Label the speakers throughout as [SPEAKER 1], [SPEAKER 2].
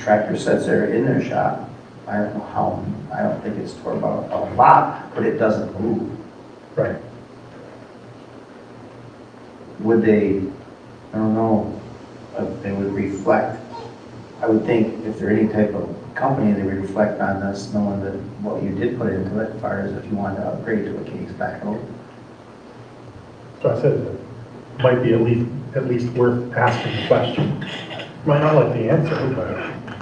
[SPEAKER 1] tractor sets there in their shop, I don't know how, I don't think it's tore about a lot, but it doesn't move.
[SPEAKER 2] Right.
[SPEAKER 1] Would they, I don't know, if they would reflect, I would think if they're any type of company, they would reflect on this, knowing that what you did put into it, as far as if you wanted to upgrade to a King's backhoe.
[SPEAKER 2] So I said, it might be at least, at least worth asking the question. Might not like the answer, but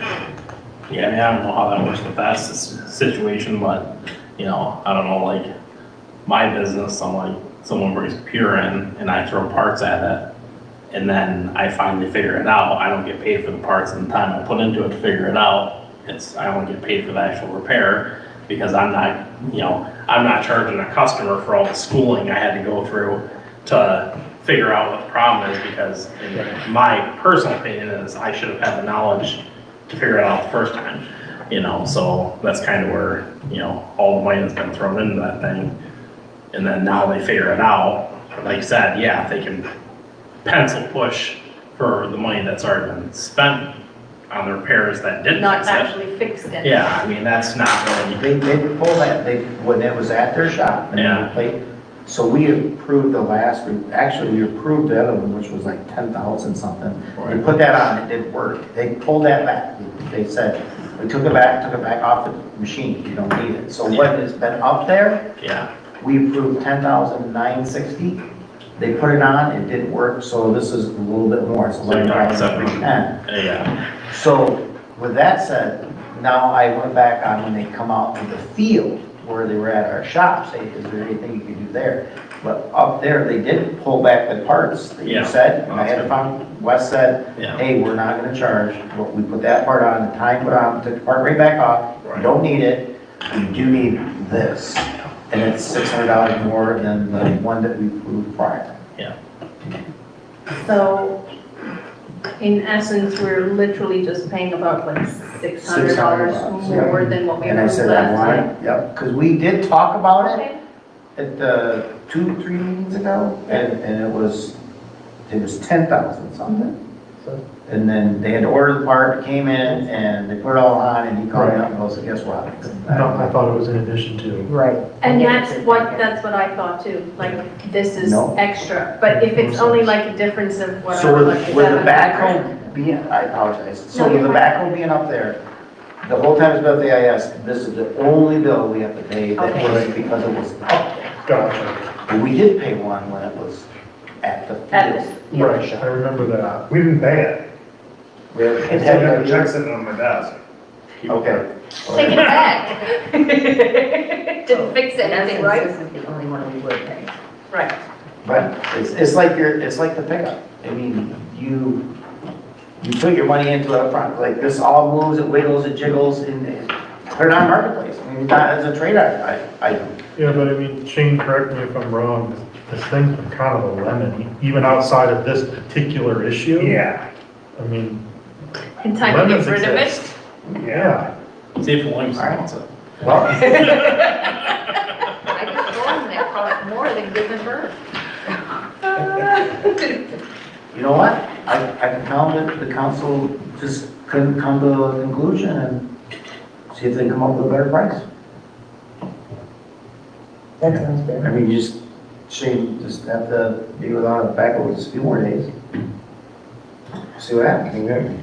[SPEAKER 3] Yeah, I mean, I don't know how that works with that s- situation, but, you know, I don't know, like, my business, I'm like, someone brings pure in and I throw parts at it. And then I finally figure it out. I don't get paid for the parts and the time I put into it to figure it out. It's, I don't get paid for the actual repair because I'm not, you know, I'm not charging a customer for all the schooling I had to go through to figure out what the problem is because in my personal opinion is I should have had the knowledge to figure it out the first time, you know, so that's kind of where, you know, all the money that's been thrown into that thing. And then now they figure it out, like I said, yeah, if they can pencil push for the money that's already been spent on the repairs that didn't
[SPEAKER 4] not
[SPEAKER 3] fix it.
[SPEAKER 4] actually fixed it.
[SPEAKER 3] Yeah, I mean, that's not really,
[SPEAKER 1] They, they would pull that, they, when it was at their shop. and they
[SPEAKER 3] Yeah.
[SPEAKER 1] played. So we approved the last, re- actually, we approved the other one, which was like ten thousand something. We put that on, it didn't work. They pulled that back. They said, we took it back, took it back off the machine, you don't need it. So what has been up there,
[SPEAKER 3] yeah,
[SPEAKER 1] we approved ten thousand nine sixty. They put it on, it didn't work, so this is a little bit more, so
[SPEAKER 3] So you're
[SPEAKER 1] like
[SPEAKER 3] talking
[SPEAKER 1] five,
[SPEAKER 3] seven.
[SPEAKER 1] ten.
[SPEAKER 3] yeah,
[SPEAKER 1] So with that said, now I went back on when they come out to the field where they were at our shop, say, is there anything you could do there? But up there, they did pull back the parts that you
[SPEAKER 3] Yeah.
[SPEAKER 1] said. I had to find, Wes said,
[SPEAKER 3] yeah,
[SPEAKER 1] hey, we're not gonna charge, but we put that part on, the time put on, took the part right back off. You
[SPEAKER 3] Right.
[SPEAKER 1] don't need it, you do need this. And it's six hundred dollars more than the one that we proved prior.
[SPEAKER 4] So in essence, we're literally just paying about like six hundred dollars
[SPEAKER 1] $600, yeah.
[SPEAKER 4] more than what we
[SPEAKER 1] And I
[SPEAKER 4] earned
[SPEAKER 1] said, I
[SPEAKER 4] last
[SPEAKER 1] want
[SPEAKER 4] time.
[SPEAKER 1] it, yep, because we did talk about it.
[SPEAKER 4] Okay.
[SPEAKER 1] at the two, three meetings ago, and, and it was, it was ten thousand something.
[SPEAKER 2] So-
[SPEAKER 1] And then they had to order the part, it came in, and they put it all on, and he called me up and goes, guess what?
[SPEAKER 2] no, I thought it was in addition to.
[SPEAKER 5] Right.
[SPEAKER 4] And that's what, that's what I thought too, like this is
[SPEAKER 1] No.
[SPEAKER 4] extra, but if it's only like a difference of what.
[SPEAKER 1] So
[SPEAKER 4] I'm
[SPEAKER 1] with,
[SPEAKER 4] like,
[SPEAKER 1] with the
[SPEAKER 4] 700.
[SPEAKER 1] backhoe being, I apologize, so
[SPEAKER 4] No,
[SPEAKER 1] with the
[SPEAKER 4] you're fine.
[SPEAKER 1] backhoe being up there, the whole time it's been at the AIS, this is the only bill we have to pay that
[SPEAKER 4] Okay.
[SPEAKER 1] was because it was up there.
[SPEAKER 2] Gotcha.
[SPEAKER 1] But We did pay one when it was at the
[SPEAKER 4] At
[SPEAKER 1] field.
[SPEAKER 4] this, yeah.
[SPEAKER 2] Right, I remember that. We didn't pay it.
[SPEAKER 1] It
[SPEAKER 2] I
[SPEAKER 1] had
[SPEAKER 2] got
[SPEAKER 1] that
[SPEAKER 2] a
[SPEAKER 1] year-
[SPEAKER 2] check sitting on my desk.
[SPEAKER 1] Okay.
[SPEAKER 4] Take it back. Didn't fix anything, right?
[SPEAKER 5] This is the only one we would pay.
[SPEAKER 4] Right.
[SPEAKER 1] But it's, it's like your, it's like the pickup. I mean, you, you put your money into it upfront, like this all moves, it wiggles, it jiggles, and it- put it on marketplace. I mean, that is a trade item. I, I,
[SPEAKER 2] Yeah, but I mean, Shane, correct me if I'm wrong, this- this thing's been kind of a lemon, even outside of this particular issue.
[SPEAKER 6] Yeah,
[SPEAKER 2] I mean,
[SPEAKER 4] In time to get
[SPEAKER 2] Lemons
[SPEAKER 4] rid of it.
[SPEAKER 2] exist. yeah,
[SPEAKER 3] see if Williamson wants it.
[SPEAKER 1] well,
[SPEAKER 5] I got one that cost more than giving birth.
[SPEAKER 1] you know what? I, I found that the council just couldn't come to a conclusion and see if they come up with a better price.
[SPEAKER 5] That sounds
[SPEAKER 1] I
[SPEAKER 5] fair.
[SPEAKER 1] mean, you just, Shane, just have to be without a backhoe just a few more days. See what happens.
[SPEAKER 6] yeah.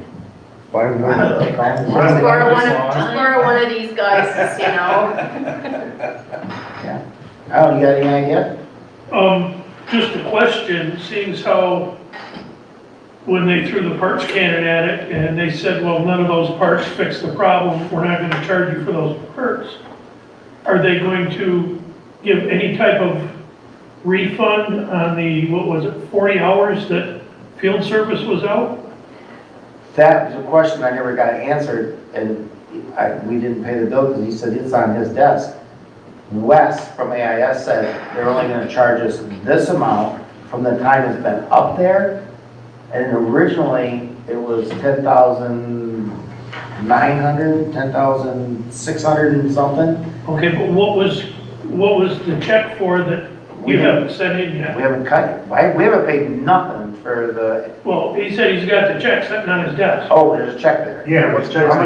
[SPEAKER 6] Five minutes.
[SPEAKER 1] Yeah.
[SPEAKER 4] Just borrow one of, just borrow one of these guys, you know?
[SPEAKER 1] Oh, you got any idea?
[SPEAKER 7] Um, just a question, seeing as how when they threw the parts cannon at it and they said, well, none of those parts fix the problem, we're not gonna charge you for those parts. Are they going to give any type of refund on the, what was it, forty hours that field service was out?
[SPEAKER 1] That was a question I never got answered, and I, we didn't pay the bill because he said it's on his desk. Wes from AIS said they're only gonna charge us this amount from the time it's been up there. And originally, it was ten thousand nine hundred, ten thousand six hundred and something.
[SPEAKER 7] Okay, but what was, what was the check for that
[SPEAKER 1] We
[SPEAKER 7] You
[SPEAKER 1] haven't,
[SPEAKER 7] haven't sent in yet.
[SPEAKER 1] we haven't cut it. Why, we haven't paid nothing for the,
[SPEAKER 7] Well, he said he's got the check sitting on his desk.
[SPEAKER 1] oh, there's a check there.
[SPEAKER 2] Yeah, what's
[SPEAKER 1] How much